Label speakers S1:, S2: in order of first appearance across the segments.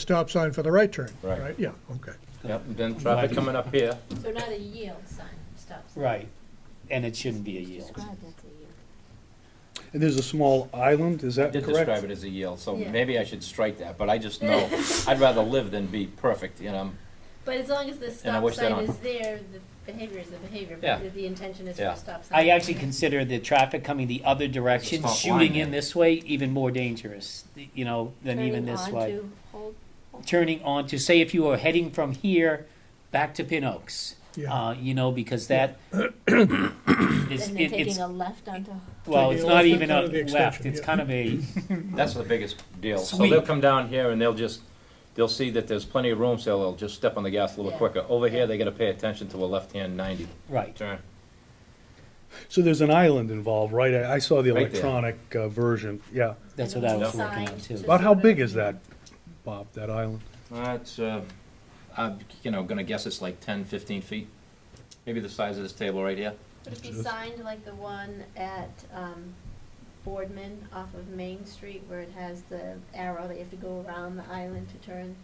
S1: stop sign for the right turn,
S2: Right.
S1: right? Yeah, okay.
S2: Yep, and then traffic coming up here.
S3: So not a yield sign, stop sign.
S4: Right, and it shouldn't be a yield.
S3: Describe that's a yield.
S5: And there's a small island, is
S2: I
S5: that
S2: did
S5: correct?
S2: describe it as a yield, so
S3: Yeah.
S2: maybe I should strike that, but I just know, I'd rather live than be perfect, you know?
S3: But as long as the
S2: And I
S3: stop
S2: wish that
S3: sign
S2: on-
S3: is there, the behavior is the behavior,
S2: Yeah.
S3: but the- the intention is for
S2: Yeah.
S3: a stop sign.
S4: I actually consider the traffic coming the other direction,
S2: stop
S4: shooting
S2: line
S4: in
S2: there.
S4: this way, even more dangerous, you know, than even this way.
S3: Turning onto Hold-
S4: Turning on to, say if you were heading from here back to Pin Oaks,
S1: Yeah,
S4: uh, you know, because that is,
S3: and
S4: it-
S3: then
S4: it's,
S3: taking a left onto,
S4: well, it's not
S1: Taking
S4: even
S1: kind
S4: a
S1: of the
S4: left,
S1: extension,
S4: it's
S1: yeah.
S4: kind of a,
S2: That's the biggest deal. So they'll
S4: Sweet.
S2: come down here and they'll just, they'll see that there's plenty of room, so they'll just step on the gas a little
S3: Yeah.
S2: quicker. Over here, they gotta pay attention to a left-hand ninety
S4: right.
S2: turn.
S5: So there's an island involved, right? I I saw the
S2: Right there.
S5: electronic uh, version, yeah.
S4: That's what I
S3: Yep.
S4: was working on
S3: Sign
S4: too.
S3: to-
S5: About how big is that, Bob, that island?
S2: That's, uh, I'm, you know, gonna guess it's like 10, 15 feet, maybe the size of this table right here.
S3: would it be
S5: Just-
S3: signed like the one at um, Boardman off of Main Street where it has the arrow that you have to go around the island to turn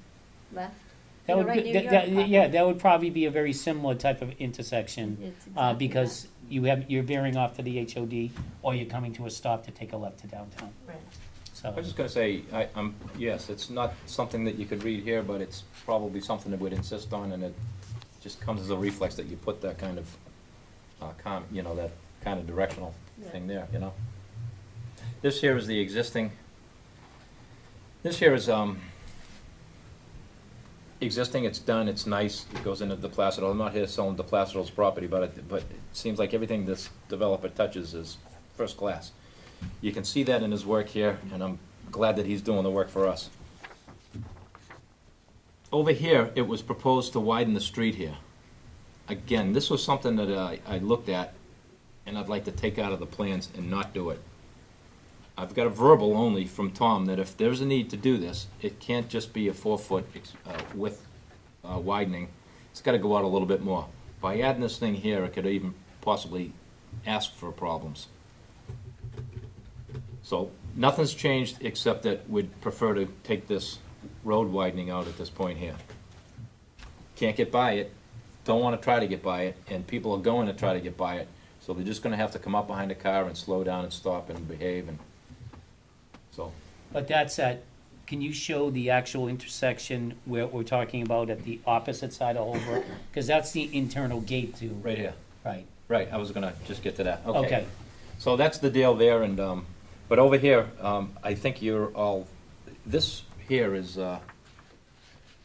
S3: left? You
S4: That
S3: know,
S4: would,
S3: right
S4: be-
S3: near
S4: that-
S3: your
S4: that-
S3: property.
S4: yeah, that would probably be a very similar type of intersection.
S3: It's
S4: Uh,
S3: exactly
S4: because you have, you're veering off to the HOD, or you're coming to a stop to take a left to downtown,
S3: that. Right.
S4: so.
S2: I was just gonna say, I, i yes, it's not something that you could read here, but it's probably something that we'd insist on, and it just comes as a reflex that you put that kind of, uh, com, you know, that kind of directional
S3: Yeah.
S2: thing there, you know? This here is the existing, this here is, um, existing, it's done, it's nice, it goes into the DePlacido, I'm not here selling DePlacido's property, but it, but it seems like everything this developer touches is first class. You can see that in his work here, and I'm glad that he's doing the work for us. Over here, it was proposed to widen the street here. Again, this was something that I, I looked at, and I'd like to take out of the plans and not do it. I've got a verbal only from Tom that if there's a need to do this, it can't just be a four-foot ex- uh, width uh, widening. It's gotta go out a little bit more. By adding this thing here, it could even possibly ask for problems. So nothing's changed except that we'd prefer to take this road widening out at this point here. Can't get by it, don't wanna try to get by it, and people are going to try to get by it. So they're just gonna have to come up behind a car and slow down and stop and behave and, so.
S4: But that's at, can you show the actual intersection where we're talking about at the opposite side of Holbrook? Because that's the internal gate to,
S2: Right here.
S4: right,
S2: Right, I was gonna just get to that,
S4: okay.
S2: So that's the deal there, and, um, but over here, um, I think you're all, this here is, uh,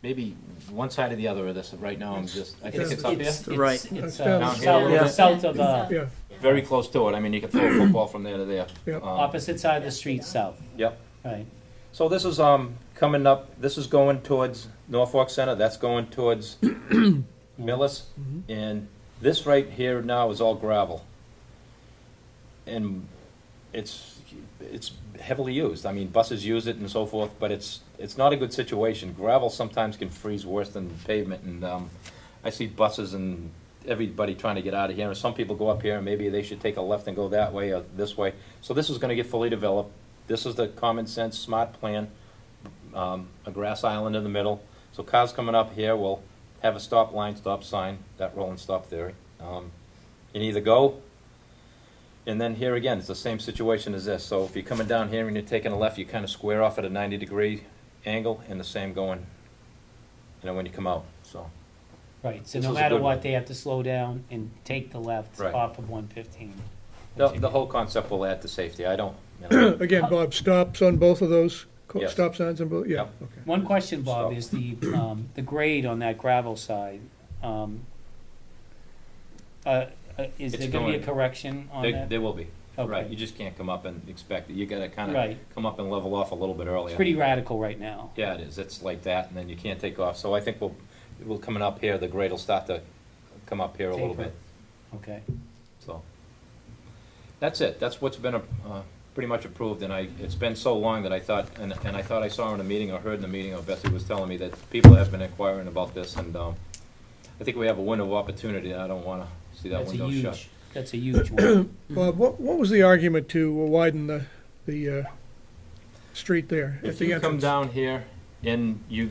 S2: maybe one side or the other of this, right now, I'm just, I think it's up here.
S4: It's-
S6: Right.
S4: It's, uh,
S1: Down
S2: here.
S4: south,
S2: Yeah.
S4: south of, uh,
S1: yeah,
S2: Very close to it, I mean, you can throw a football from there to there.
S1: Yep.
S2: Um,
S4: opposite side of the street, south,
S2: Yep,
S4: right,
S2: so this is, um, coming up, this is going towards Norfolk Center, that's going towards Millis, and this right here now is all gravel. And it's, it's heavily used, I mean, buses use it and so forth, but it's, it's not a good situation. Gravel sometimes can freeze worse than pavement, and, um, I see buses and everybody trying to get out of here, and some people go up here, and maybe they should take a left and go that way or this way. So this is gonna get fully developed, this is the common sense, smart plan, um, a grass island in the middle. So cars coming up here will have a stop line, stop sign, that roll and stop theory. Um, you can either go, and then here again, it's the same situation as this. So if you're coming down here and you're taking a left, you kind of square off at a ninety degree angle, and the same going, you know, when you come out, so.
S4: right. So
S2: This
S4: no
S2: was a
S4: matter
S2: good
S4: what,
S2: one.
S4: they have to slow down and take the left
S2: Right.
S4: off of one fifteen.
S2: The, the whole concept will add to safety, I don't, you know,
S1: again, Bob, stops on both of those, Co-
S2: Yes.
S1: stop signs on both, yeah, okay.
S4: One question, Bob,
S2: So-
S4: is the, um, the grade on that gravel side, um, uh, uh, is
S2: It's
S4: there gonna be
S2: going-
S4: a correction on
S2: they,
S4: that?
S2: they will be. Right,
S4: Okay.
S2: you just can't come up and expect it, you gotta kind of
S4: Right.
S2: come up and level off a little bit earlier.
S4: It's pretty radical right now.
S2: Yeah, it is. It's like that, and then you can't take off. So I think we'll, we'll coming up here, the grade will start to come up here a little
S4: Taper.
S2: bit,
S4: Okay,
S2: so. That's it. That's what's been, uh, pretty much approved, and I, it's been so long that I thought, and, and I thought I saw in a meeting or heard in a meeting, or Betsy was telling me that people have been inquiring about this, and, um, I think we have a window of opportunity, and I don't wanna see that
S4: that's a
S2: window shut.
S4: huge, that's a huge one.
S1: Bob, what, what was the argument to widen the, the, uh, street there at
S2: If
S1: the
S2: you come
S1: entrance?
S2: down here and you